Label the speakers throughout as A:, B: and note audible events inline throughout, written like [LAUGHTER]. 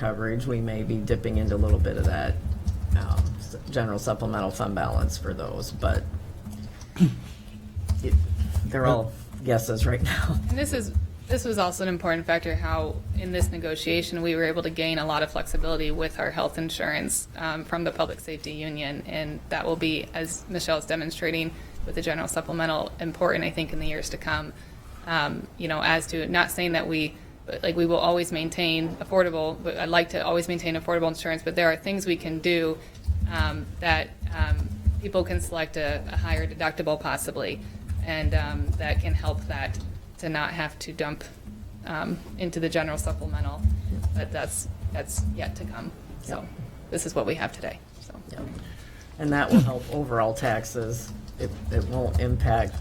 A: coverage, we may be dipping into a little bit of that um, s- general supplemental fund balance for those, but it- they're all guesses right now.
B: And this is, this was also an important factor, how in this negotiation, we were able to gain a lot of flexibility with our health insurance um, from the Public Safety Union. And that will be, as Michelle is demonstrating with the general supplemental, important, I think, in the years to come. Um, You know, as to, not saying that we, but, like, we will always maintain affordable, but I'd like to always maintain affordable insurance, but there are things we can do um, that um, people can select a a higher deductible possibly, and um, that can help that to not have to dump um, into the general supplemental. But that's, that's yet to come. So this is what we have today, so.
A: Yep. And that will help overall taxes. It, it won't impact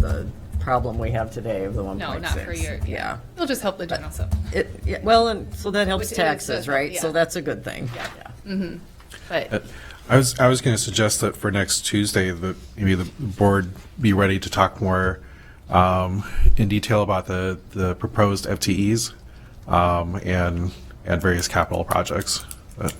A: the problem we have today of the one
B: No,
A: point six.
B: not for your, yeah. It'll just help the general supplemental.
A: It, yeah, well, and so that helps
B: Which is, uh,
A: taxes, right? So
B: yeah.
A: that's a good thing.
B: Yeah.
A: Yeah.
B: But
C: I was, I was going to suggest that for next Tuesday, that maybe the board be ready to talk more um, in detail about the, the proposed FTEs um, and, and various capital projects. But,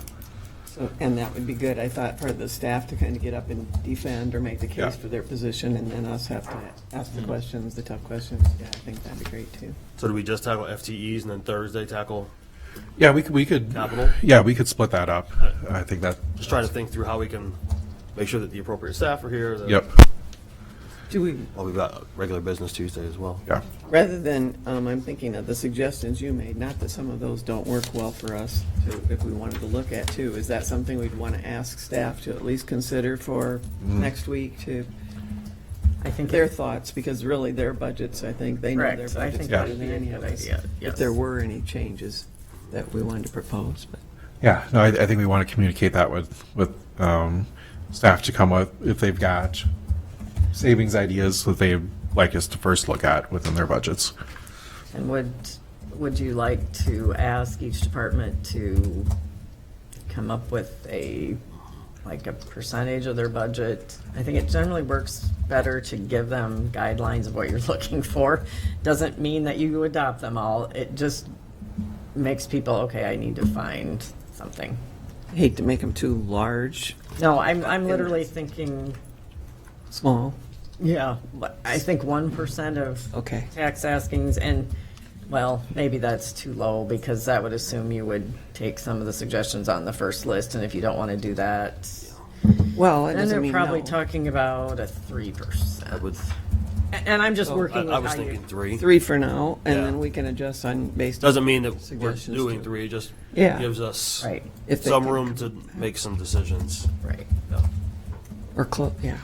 D: So- And that would be good, I thought, for the staff to kind of get up and defend or make the
C: Yeah.
D: case for their position, and then us have to ask the questions, the tough questions. Yeah, I think that'd be great, too.
E: So do we just tackle FTEs and then Thursday tackle?
C: Yeah, we could, we could.
E: Capital?
C: Yeah, we could split that up. I think that,
E: Just trying to think through how we can make sure that the appropriate staff are here. that-
C: yep,
D: Do we,
E: Well, we've got regular business Tuesday as well.
C: yeah.
D: rather than, um, I'm thinking of the suggestions you made, not that some of those don't work well for us, to- if we wanted to look at, too, is that something we'd want to ask staff to at least consider for next week, to
A: I think
D: their thoughts, because really, their budgets, I think, they know their
A: Correct. I
D: budgets
A: think
C: Yeah.
D: better
A: that'd
D: than
A: be a
D: any of
A: good
D: us.
A: idea.
D: If
A: Yes.
D: there were any changes that we wanted to propose, but.
C: Yeah, no, I, I think we want to communicate that with, with um, staff to come up if they've got savings ideas that they'd like us to first look at within their budgets.
A: And would, would you like to ask each department to come up with a, like a percentage of their budget? I think it generally works better to give them guidelines of what you're [LAUGHS] looking for. Doesn't mean that you adopt them all, it just makes people, okay, I need to find something.
D: hate to make them too large,
A: No, I'm, I'm literally thinking,
D: small.
A: yeah, but I think one percent of
D: Okay.
A: tax askings, and, well, maybe that's too low, because that would assume you would take some of the suggestions on the first list, and if you don't want to do that,
D: Well, it
A: then
D: doesn't
A: they're
D: mean
A: probably
D: no.
A: talking about a three
E: I
A: percent.
E: would,
A: And I'm just
D: I-
E: I
A: working
E: I
A: with
E: was
A: how you.
E: thinking three.
D: Three for now, and
E: Yeah.
D: then we can adjust on based.
E: Doesn't mean that we're
D: Suggestions
E: doing
D: too.
E: three, it just
D: Yeah.
E: gives us
A: Right,
D: if they
E: some
D: can-
E: room to make some decisions.
A: right.
E: Yeah.
D: Or close, yeah.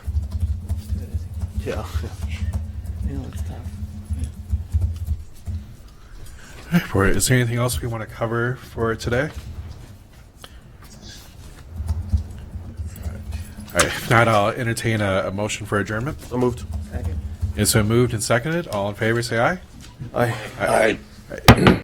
E: Yeah.
D: I know it's tough.
C: For, is there anything else we want to cover for today? All right, if not, I'll entertain a, a motion for adjournment.
E: So moved.
C: It's been moved and seconded. All in favor, say aye.
E: Aye.
C: Aye.